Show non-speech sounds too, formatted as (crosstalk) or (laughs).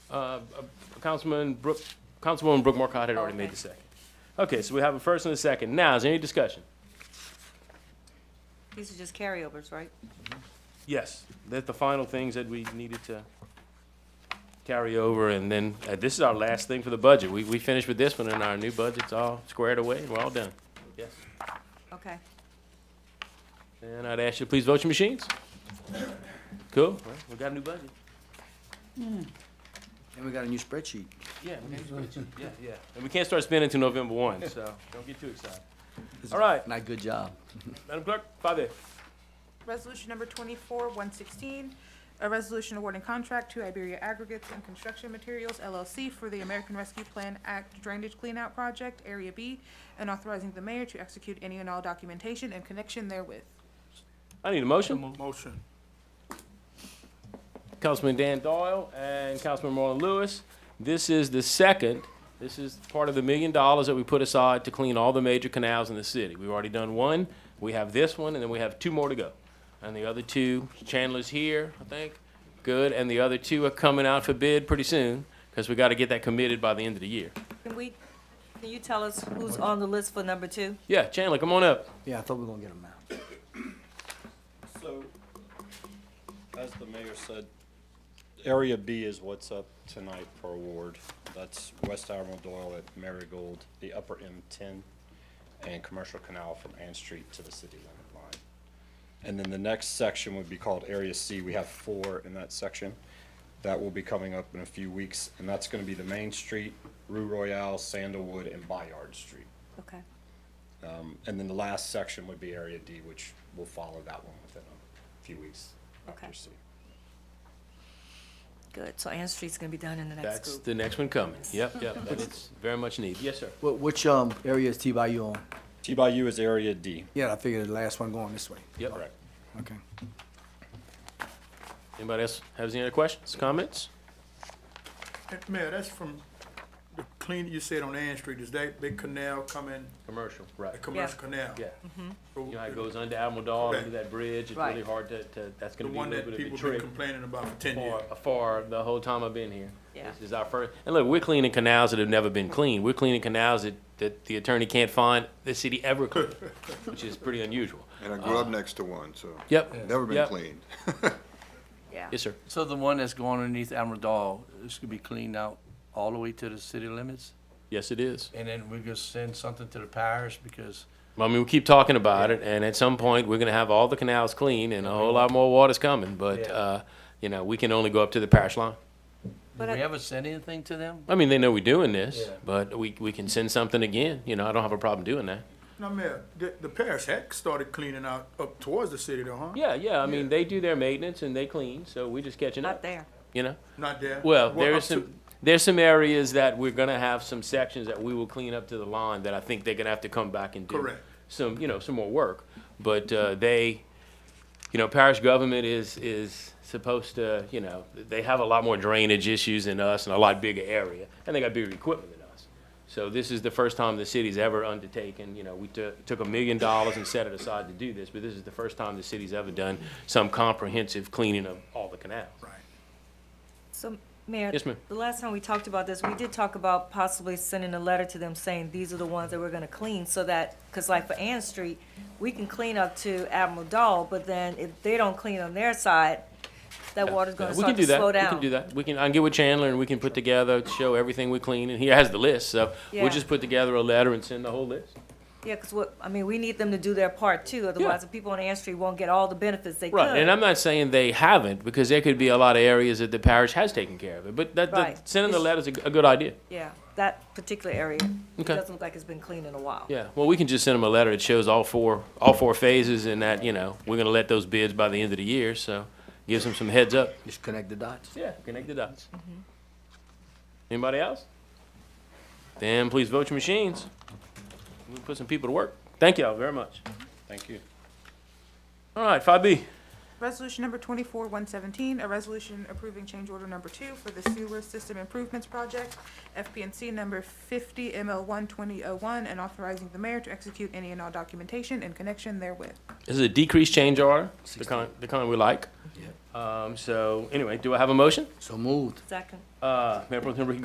Uh, Councilman Brook, Councilwoman Brooke Markcott had already Okay. made the second. Okay, so we have a first and a second. Now, is there any discussion? These are just carryovers, right? Yes, that's the final things that we needed to carry over, and then, uh, this is our last thing for the budget. We, we finished with this one, and our new budget's all squared away, and we're all done. Yes. Okay. And I'd ask you to please vote your machines. Cool, all right, we got a new budget. And we got a new spreadsheet. Yeah, we got a new budget. yeah, yeah. And we can't start spending until November one, so (laughs) don't get too excited. All right, Not good job. Madam Clerk, five A. Resolution number twenty-four, one sixteen, a resolution awarding contract to Iberia Aggregates and Construction Materials LLC for the American Rescue Plan Act Drainage Cleanout Project, Area B, and authorizing the mayor to execute any and all documentation in connection therewith. I need a motion. Motion. Councilman Dan Doyle and Councilman Marlon Lewis. This is the second, this is part of the million dollars that we put aside to clean all the major canals in the city. We've already done one, we have this one, and then we have two more to go. And the other two, Chandler's here, I think, good, and the other two are coming out for bid pretty soon, because we gotta get that committed by the end of the year. Can we, can you tell us who's on the list for number two? Yeah, Chandler, come on up. Yeah, I thought we were gonna get them out. So, as the mayor said, Area B is what's up tonight for award. That's West Admiral Doyle at Marigold, the upper M10, and Commercial Canal from Ann Street to the city limit line. And then the next section would be called Area C. We have four in that section. That will be coming up in a few weeks, and that's gonna be the Main Street, Rue Royale, Sandalwood, and Bayard Street. Okay. And then the last section would be Area D, which will follow that one within a few weeks Okay. after C. Good, so Ann Street's gonna be done in the next That's group. the next one coming. Yep, yep, and it's very much needed. Yes, sir. What, which, um, area is T-Bayou on? T by U is Area D. Yeah, I figured the last one going this way. Yep. Correct. Okay. Anybody else has any other questions, comments? Mayor, that's from the clean, you said on Ann Street, is that big canal coming, Commercial, a right. commercial canal? Yeah. So You know, how it goes under Admiral Dog, under Right. that bridge, it's Right. really hard to, to, that's The gonna be a one little that bit of a people been trick complaining about for ten years. for, for the whole time I've been here. Yeah. This is our first, and look, we're cleaning canals that have never been cleaned, we're cleaning canals that, that the attorney can't find the city ever (laughs) cleaned, which is pretty unusual. And I grew Uh, up next to one, so. Yep. Never been Yep. cleaned. Yeah. Yes, sir. So the one that's going underneath Admiral Doll, this could be cleaned out all the way to the city limits? Yes, it is. And then we just send something to the parish because Well, I mean, we keep talking about it, and at some point, we're gonna have all the canals clean, and a whole lot more water's coming, but, Yeah. uh, you know, we can only go up to the parish line. But did we I- ever send anything to them? I mean, they know we're doing this, Yeah. but we, we can send something again, you know, I don't have a problem doing that. Now, Mayor, the, the parish had started cleaning out up towards the city though, huh? Yeah, yeah, I mean, they do their maintenance and they clean, so we're just catching Not up, there. you know? Not there? Well, up there's to- some, there's some areas that we're gonna have some sections that we will clean up to the line that I think they're gonna have to come back and do. Correct. Some, you know, some more work, but, uh, they, you know, parish government is, is supposed to, you know, they have a lot more drainage issues than us and a lot bigger area, and they got bigger equipment than us. So this is the first time the city's ever undertaken, you know, we took, took a million dollars and set it aside to do this, but this is the first time the city's ever done some comprehensive cleaning of all the canals. Right. So, Mayor. Yes, ma'am. The last time we talked about this, we did talk about possibly sending a letter to them saying, these are the ones that we're gonna clean, so that, cause like for Ann Street, we can clean up to Admiral Doll, but then if they don't clean on their side, that Yeah, water's yeah, gonna we can start do to that. slow down. We can do that. We can. I can get with Chandler and we can put together show everything we clean. And he has the list, so Yeah. we'll just put together a letter and send the whole list. Yeah, cause what, I mean, we need them to do their part too, otherwise the people on Ann Street won't get all the benefits they could. Right. And I'm not saying they haven't because there could be a lot of areas that the parish has taken care of it. But that, that- Right. sending the It's- letter's a, g- a good idea. Yeah, that particular area, it Okay. doesn't look like it's been cleaned in a while. Yeah. Well, we can just send them a letter that shows all four all four phases and that you know we're gonna let those bids by the end of the year. So gives them some heads up. Just connect the dots. Yeah. Connect the dots. Anybody else? Then please vote your machines. We'll put some people to work. Mm-hmm. Thank y'all very much. Thank you. All right, five B. Resolution number twenty-four one seventeen, a resolution approving change order number two for the sewer system improvements project, FPNC number fifty ML one twenty oh one, and authorizing the mayor to execute any and all documentation in connection therewith. This is a decreased change order, the kind, the kind we like. Um, so anyway, do I have a motion? So moved. Second. Uh, Mayor Pro Tem Ricky